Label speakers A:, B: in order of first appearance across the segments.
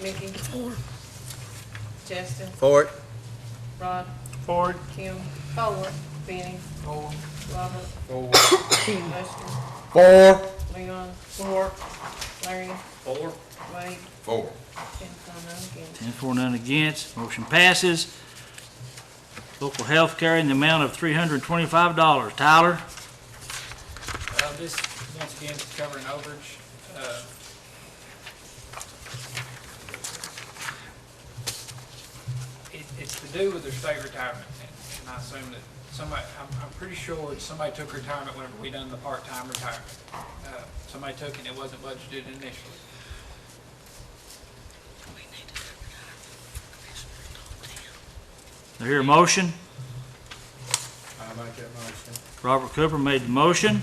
A: Mickey? Justin?
B: Ford.
A: Rod?
C: Ford.
A: Kim? Forward. Benny? Robert?
C: Four.
A: Lester?
B: Four.
A: Leon? Four. Larry?
C: Four.
A: Wade?
B: Four.
A: Ten, four, none against.
D: Ten for, none against, motion passes. Local health care in the amount of three hundred and twenty-five dollars. Tyler?
E: Uh, This, once again, is covering overage. Uh, it- It's to do with their state retirement, and- and I assume that somebody, I'm, I'm pretty sure that somebody took retirement whenever we done the part-time retirement. Uh, Somebody took it and it wasn't budgeted initially.
D: Do I hear a motion?
C: I make that motion.
D: Robert Cooper made the motion,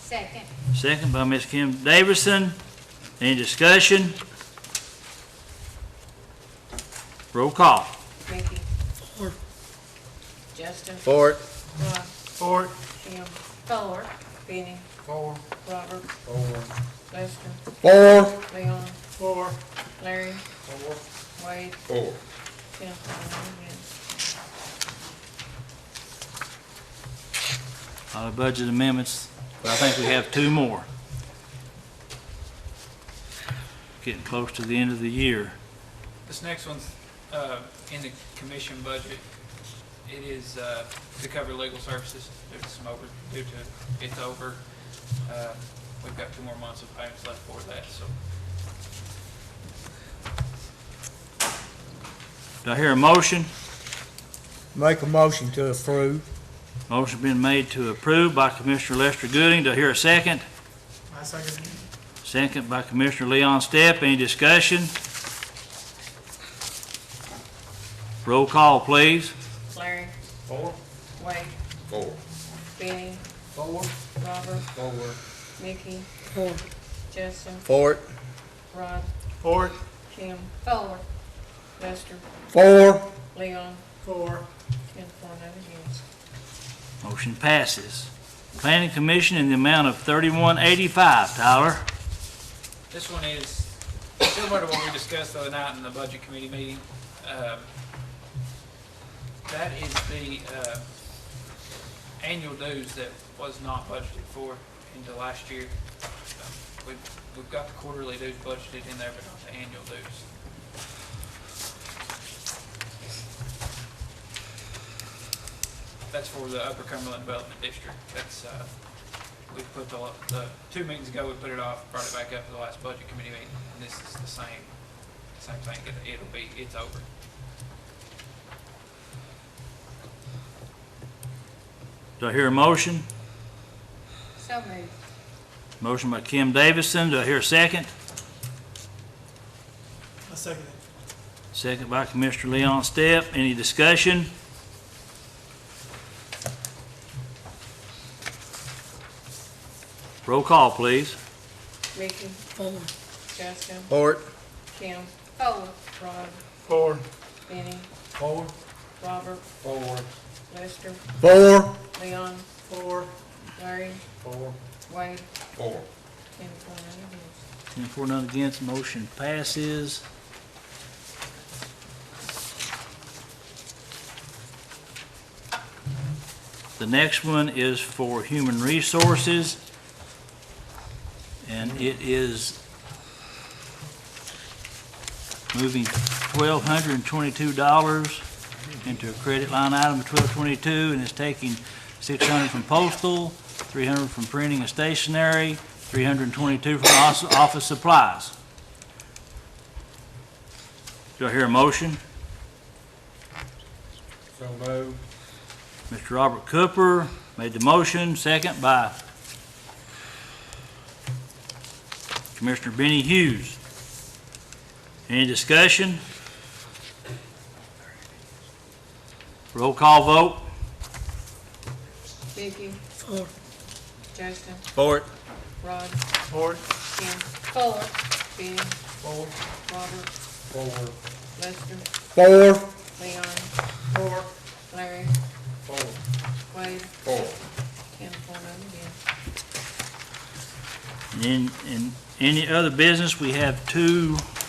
F: Second.
D: second by Ms. Kim Davison. Any discussion? Roll call.
A: Mickey? Justin?
B: Ford.
A: Rod?
C: Ford.
A: Kim?
F: Four.
A: Benny?
C: Four.
A: Robert?
C: Four.
A: Lester?
B: Four.
A: Leon?
C: Four.
A: Larry?
C: Four.
A: Wade?
B: Four.
A: Ten, four, none against.
D: All the budget amendments, but I think we have two more. Getting close to the end of the year.
E: This next one's uh, in the commission budget. It is uh, to cover legal services due to some over, due to, it's over. Uh, We've got two more months of payments left for that, so
D: Do I hear a motion?
G: Make a motion to approve.
D: Motion been made to approve by Commissioner Lester Gooding. Do I hear a second?
C: I second.
D: Second by Commissioner Leon Stepp. Any discussion? Roll call, please.
A: Larry?
C: Four.
A: Wade?
B: Four.
A: Benny?
C: Four.
A: Robert?
C: Four.
A: Mickey?
G: Four.
A: Justin?
B: Ford.
A: Rod?
C: Ford.
A: Kim?
F: Four.
A: Lester?
G: Four.
A: Leon?
C: Four.
A: Ten, four, none against.
D: Motion passes. Planning Commission in the amount of thirty-one eighty-five. Tyler?
E: This one is similar to what we discussed the other night in the budget committee meeting. Um, That is the uh, annual dues that was not budgeted for into last year. Um, We've we've got the quarterly dues budgeted in there, but not the annual dues. That's for the Upper Cumberland Development District. That's uh, we put the, the, two meetings ago, we put it off, brought it back up to the last budget committee meeting, and this is the same, same thing, It- it'll be, it's over.
D: Do I hear a motion?
F: So moved.
D: Motion by Kim Davison. Do I hear a second?
C: I second it.
D: Second by Commissioner Leon Stepp. Any discussion? Roll call, please.
A: Mickey? Justin?
B: Ford.
A: Kim?
F: Four.
A: Rod?
C: Four.
A: Benny?
C: Four.
A: Robert?
C: Four.
A: Lester?
G: Four.
A: Leon?
C: Four.
A: Larry?
C: Four.
A: Wade?
B: Four.
A: Ten, four, none against.
D: Ten for, none against, motion passes. The next one is for Human Resources, and it is moving twelve hundred and twenty-two dollars into a credit line item of twelve twenty-two, and it's taking six hundred from postal, three hundred from printing and stationery, 322 from os- office supplies. Do I hear a motion?
C: So moved.
D: Mr. Robert Cooper made the motion, second by Commissioner Benny Hughes. Any discussion? Roll call vote.
A: Mickey?
G: Four.
A: Justin?
B: Ford.
A: Rod?
C: Ford.
A: Kim?
F: Four.
A: Benny?
C: Four.
A: Robert?
C: Four.
A: Lester?
G: Four.
A: Leon?
C: Four.
A: Larry?
C: Four.
A: Wade?
B: Four.
A: Ten, four, none against.
D: And in- in any other business, we have two